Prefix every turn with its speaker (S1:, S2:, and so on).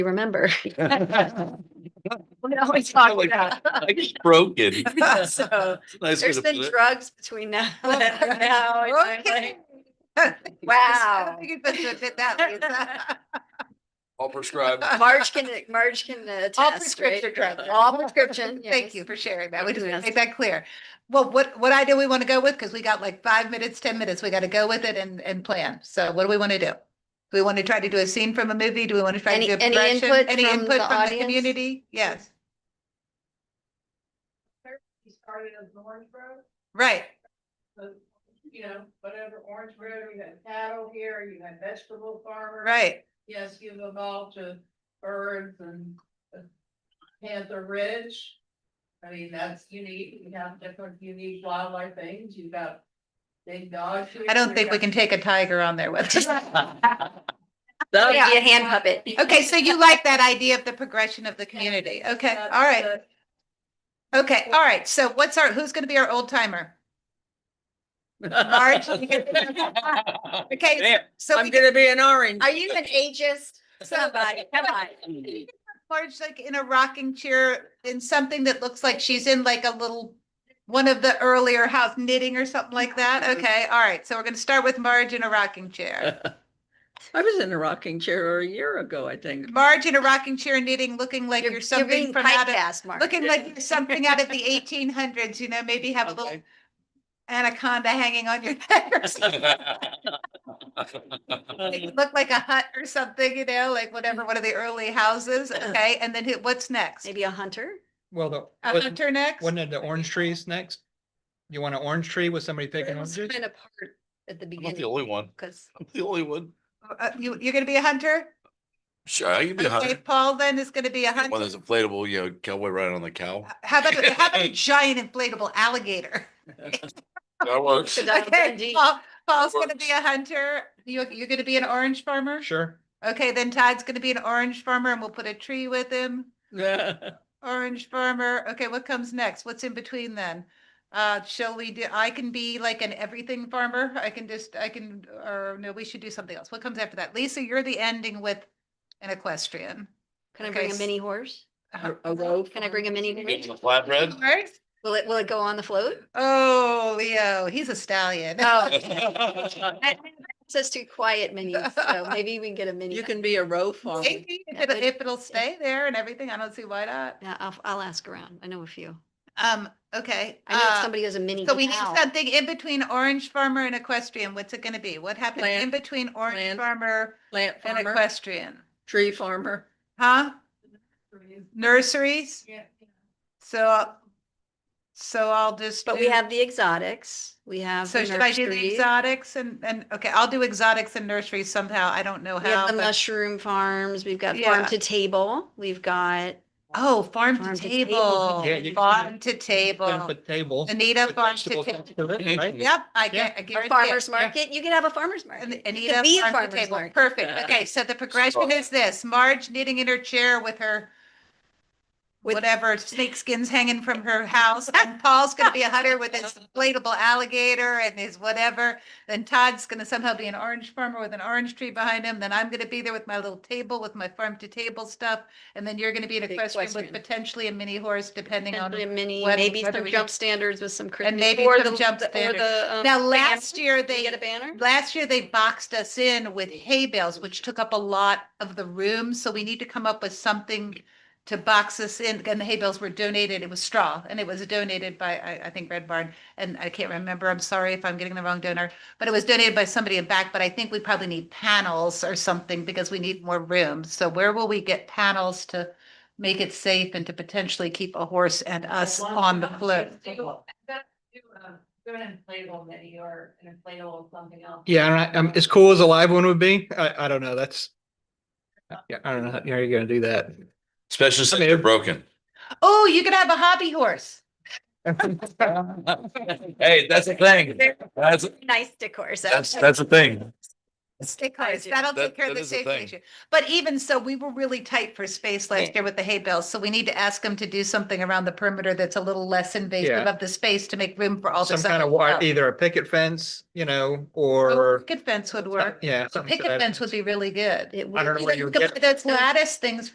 S1: remember.
S2: Like
S1: We always talk
S2: Like-
S1: about.
S2: it's Broken.
S1: So
S2: Nice
S1: Oh, there's
S2: way to
S1: been
S2: put it.
S1: drugs between now. and now, and I'm
S3: Okay.
S1: like,
S3: I
S1: Wow.
S3: don't think it's best to admit that,
S2: All prescribed.
S3: Lisa.
S1: Marge can, Marge can
S3: All
S1: attest, right?
S3: prescription drugs.
S1: All prescription.
S3: Thank
S1: yes.
S3: you for sharing that. We just
S1: Yes.
S3: make that clear. Well, what, what idea we want to go with, because we got like five minutes, ten minutes, we got to go with it and, and plan. So what do we want to do? Do we want to try to do a scene from a movie? Do we want to try to
S1: Any-
S3: do a
S1: any
S3: production?
S1: input from
S3: Any
S1: the
S3: input from the
S1: audience?
S3: community? Yes.
S4: You started as Orange Road,
S3: Right,
S4: so, you know, whatever, Orange Road, you had cattle here, you had vegetable farmers.
S3: right.
S4: Yes, you've evolved to birds and uh, Panther Ridge. I mean, that's unique, you have different unique wildlife things, you've got big dogs.
S3: I don't think we can take a tiger on there with us.
S1: That'll
S3: Yeah.
S1: be a hand puppet.
S3: Okay, so you like that idea of the progression of the community? Okay, all right. Okay, all right. So what's our, who's gonna be our old timer? Marge? Okay,
S2: There.
S3: so we get
S5: gonna be an orange.
S1: Are you an ageist? Somebody, come on.
S3: Marge like in a rocking chair in something that looks like she's in like a little, one of the earlier house knitting or something like that. Okay, all right. So we're gonna start with Marge in a rocking chair.
S5: I was in a rocking chair a year ago, I think.
S3: Marge in a rocking chair knitting, looking like you're something
S1: being
S3: from out of,
S1: typecast, Marge.
S3: looking like you're something out of the eighteen hundreds, you know, maybe have a little
S5: Okay.
S3: anaconda hanging on your head or something. Make it Look like a hut or something, you know, like whatever, one of the early houses, okay, and then who- what's next?
S1: Maybe a hunter?
S6: Well, the,
S3: A
S6: wasn't-
S3: hunter next?
S6: wasn't it the orange trees next? You want an orange tree with somebody picking
S1: It
S6: oranges?
S1: was Kind of part at the
S2: I'm not the
S1: beginning,
S2: only one.
S1: because
S2: I'm the only one.
S3: Uh, You, you're gonna be a hunter?
S2: Sure, you'd be a
S3: Okay,
S2: hundred.
S3: Paul then is gonna be a
S2: One
S3: hunter.
S2: that's inflatable, you know, cowboy riding on the cow.
S3: How about, a- how about a giant inflatable alligator?
S2: That works.
S1: Good Donald
S3: Okay,
S1: Dundee.
S3: Paul, Paul's gonna be a hunter. You, you're gonna be an orange farmer?
S6: Sure.
S3: Okay, then Todd's gonna be an orange farmer and we'll put a tree with him. Orange farmer. Okay, what comes next? What's in between then? Uh, shall we do, I can be like an everything farmer. I can just, I can, or no, we should do something else. What comes after that? Lisa, you're the ending with an equestrian.
S1: can I bring
S3: Okay,
S1: a
S3: s-
S1: mini horse?
S5: A- a row
S1: Can I bring a mini?
S2: Eating
S1: horse?
S2: the flatbread.
S3: Horse?
S1: Will it, will it go on the float?
S3: Oh, Leo, he's a stallion.
S1: Oh, it's just too quiet mini, so maybe we can get a mini.
S5: You can be a row farmer.
S3: Maybe If
S1: That
S3: it'll,
S1: would-
S3: if it'll stay there and everything, I don't see why not.
S1: Yeah, I'll, I'll ask around. I know a few.
S3: Um, okay.
S1: I know
S3: uh,
S1: somebody has a mini.
S3: So we need
S1: cow.
S3: something in between orange farmer and equestrian. What's it gonna be? What happens in
S5: Plant-
S3: between orange
S5: plant
S3: farmer
S5: Plant
S3: and
S5: farmer,
S3: equestrian?
S5: tree farmer.
S3: Huh? Nurseries?
S4: Yeah.
S3: So, I'll- so I'll just.
S1: But we
S3: do-
S1: have the exotics, we have.
S3: So
S1: the
S3: should I do the
S1: nursery,
S3: exotics and, and, okay, I'll do exotics and nurseries somehow. I don't know
S1: We have
S3: how.
S1: the
S3: but-
S1: mushroom farms, we've got farm
S3: Yeah.
S1: to table, we've got,
S3: Oh, farm
S1: Farm
S3: to
S1: to table.
S3: table,
S6: Yeah, you-
S3: farm to
S6: Dump
S3: table.
S6: a table.
S3: Anita
S6: with
S3: farm to
S6: vegetables
S3: table.
S6: next to it, right?
S3: Yep, I
S6: Yeah.
S3: get, I
S1: a
S3: guarantee it.
S1: farmer's market, you could have a farmer's
S3: And
S1: market. You could
S3: Anita
S1: be a
S3: farm to
S1: farmer's
S3: table.
S1: market.
S3: Perfect. Okay, so the progression is this, Marge knitting in her chair with her
S1: With-
S3: whatever snakeskins hanging from her house, and Paul's gonna be a hunter with his inflatable alligator and his whatever. Then Todd's gonna somehow be an orange farmer with an orange tree behind him. Then I'm gonna be there with my little table with my farm to table stuff. And then you're gonna be an
S1: Big
S3: equestrian with
S1: equestrian.
S3: potentially a mini horse, depending on.
S1: Potentially a mini,
S3: whether-
S1: maybe
S3: whether
S1: some
S3: we
S1: jump
S3: can-
S1: standards with some. curtains,
S3: maybe
S1: or
S3: some
S1: the-
S3: jump
S1: the- or
S3: standards.
S1: the, um,
S3: Now,
S1: banner.
S3: last year,
S1: Did you
S3: they
S1: Get a banner?
S3: Last year, they boxed us in with hay bales, which took up a lot of the room, so we need to come up with something to box us in, and the hay bales were donated, it was straw, and it was donated by, I, I think Red Barn, and I can't remember, I'm sorry if I'm getting the wrong donor, but it was donated by somebody in back, but I think we probably need panels or something, because we need more room, so where will we get panels to make it safe and to potentially keep a horse and us on the float?
S4: Do uh, an inflatable mini or an inflatable something else.
S6: Yeah, and I, um, as cool as a live one would be, I, I don't know, that's. Yeah, I don't know, how how are you gonna do that?
S2: Especially since they're broken.
S3: Oh, you could have a hobby horse.
S2: Hey, that's a thing. That's,
S1: Nice decor, so.
S2: that's, that's a thing.
S3: Stick
S1: I
S3: cars,
S1: do.
S3: that'll
S2: That-
S3: take care of
S2: that
S3: the
S2: is a
S3: safety
S2: thing.
S3: issue. But even so, we were really tight for space last
S2: Yeah.
S3: year with the hay bales, so we need to ask them to do something around the perimeter that's a little less invasive
S6: Yeah.
S3: of the space to make room for all the.
S6: Some kind of
S3: wire.
S6: wire, either a picket fence, you know,
S3: Oh, A
S6: or,
S3: Picket fence would work.
S6: yeah.
S3: A
S6: something to
S3: Picket
S6: that
S3: fence would be really good.
S1: It
S6: I
S1: would
S6: don't know
S1: be-
S6: where you
S3: You
S6: would
S3: could
S6: get-
S3: put Those lattice things